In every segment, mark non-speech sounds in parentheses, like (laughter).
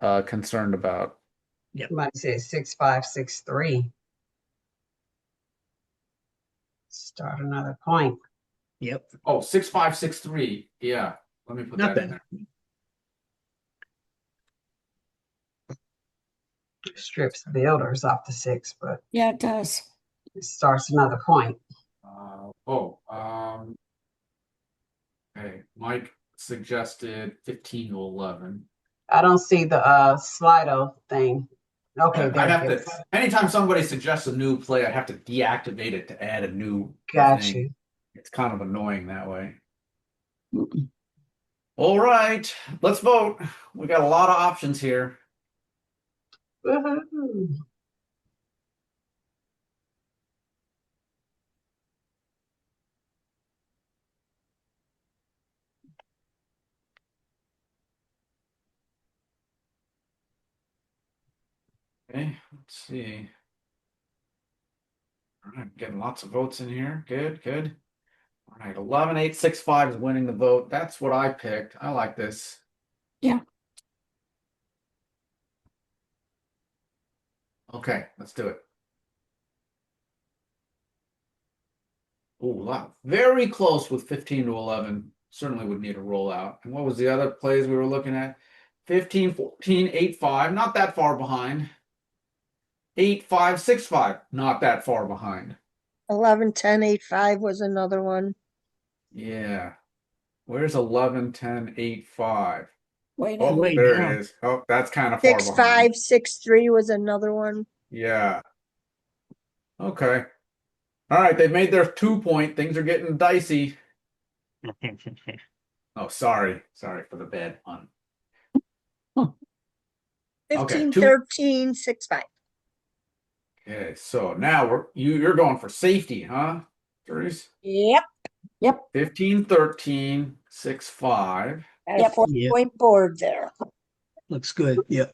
uh, concerned about. Somebody said six, five, six, three. Start another point. Yep. Oh, six, five, six, three. Yeah, let me put that in Nothing. there. Strips builders off the six, but Yeah, it does. it starts another point. Uh, oh, um. Okay, Mike suggested fifteen to eleven. I don't see the uh Slido thing. Okay, I have there it is. to, anytime somebody suggests a new play, I have to deactivate it to add a new. Got thing. you. It's kind of annoying that way. Mm-mm. All right, let's vote. We got a lot of options here. Woohoo. Okay, let's see. All right, getting lots of votes in here. Good, good. All right, eleven eight six five is winning the vote. That's what I picked. I like this. Yeah. Okay, let's do it. Oh, wow. Very close with fifteen to eleven. Certainly would need a rollout. And what was the other plays we were looking at? 15, 14, 8, 5, not that far behind. 8, 5, 6, 5, not that far behind. Eleven, ten, eight, five was another one. Yeah. Where's 11, 10, 8, 5? Way Oh, down. Way there down. it is. Oh, that's kind of far Six, behind. five, six, three was another one. Yeah. Okay. All right, they've made their two point. Things are getting dicey. Oh, sorry. Sorry for the bad pun. Okay, Fifteen, two- thirteen, six, five. Okay, so now we're you you're going for safety, huh? Bruce? Yep, 15, 13, 6, 5. got a Yep. four Yep. point board there. Looks good. Yep.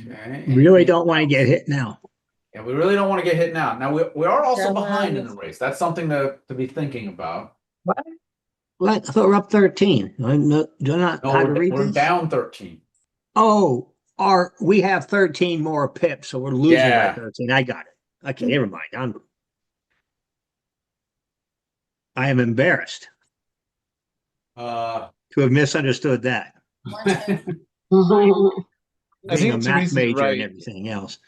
Okay. Really and- don't want to get hit now. Yeah, we really don't want to get hit now. Now we, we are also Don't behind in worry. the race. That's something to, to be thinking about. Well, I thought we're up thirteen. Do I know- do I not No, how to we're, read we're this? down 13. Oh, our, we have thirteen more pips, so we're losing by Yeah. thirteen. I got it. Okay, never mind. I'm. I am embarrassed Uh, (laughs) to have misunderstood that. I Being a think math Teresa's major and right. everything else,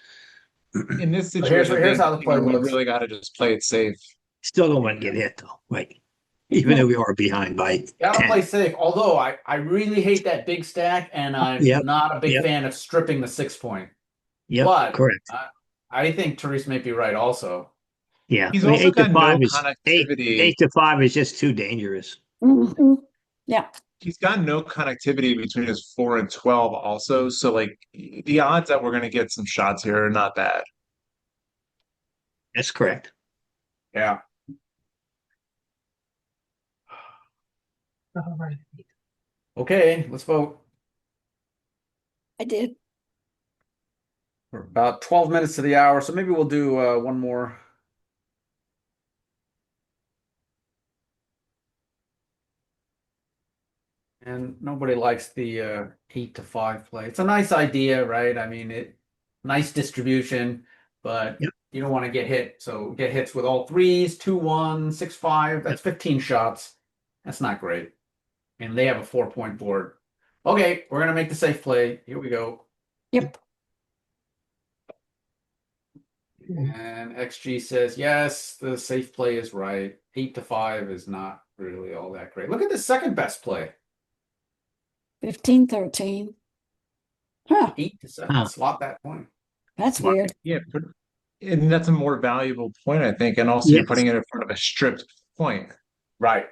in this But situation, here's- here's I how the think play we works. really got to just play it safe. still don't want to get hit though, right? Even though we are behind by gotta ten. play safe. Although I, I really hate that big stack, and I'm Yep, not a big yep. fan of stripping the six point. Yep, but- correct. I think Therese may be right also. Yeah. He's I mean, also eight to got five no is- eight- connectivity. Eight to five is just too dangerous. Mhm. He's got no connectivity between his four and twelve, also. So like the odds that we're going to get some shots here are not bad. That's correct. Yeah. (laughs) All right. Okay, let's vote. I did. We're about 12 minutes to the hour, so maybe we'll do uh, one more. And nobody likes the uh, eight to five play. It's a nice idea, right? I mean, it nice distribution, but Yep. you don't want to get hit. So get hits with all threes, two, one, six, five. That's 15 shots. That's not great. And they have a four point board. Okay, we're going to make the safe play. Here we go. And XG says, yes, the safe play is right. Eight to five is not really all that great. Look at the second best play. Fifteen, thirteen. Huh, Eight to seven. Huh. Slot that point. that's Wow. weird. Yeah, but- and that's a more valuable point, I think. And also, you're Yes. putting it in front of a stripped point. Right.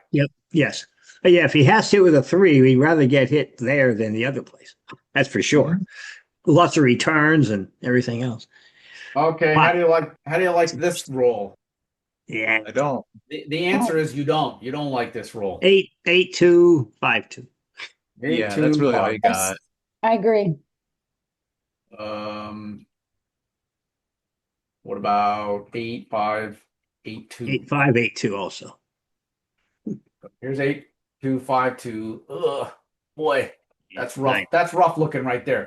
Yes. But yeah, if he has to with a three, we'd rather get hit there than the other place. That's for sure. Lots of returns and everything else. Okay. How Wow. do you like how do you like this roll? Yeah. I don't. The, the answer is you don't. You don't like this roll. Eight, eight, two, five, two. Eight, yeah, two, that's really all five. you got. I agree. um what about eight, five, eight, two? Eight, five, eight, two also. Here's eight, two, five, two. Ugh, boy, that's rough. Nine. That's rough looking right there.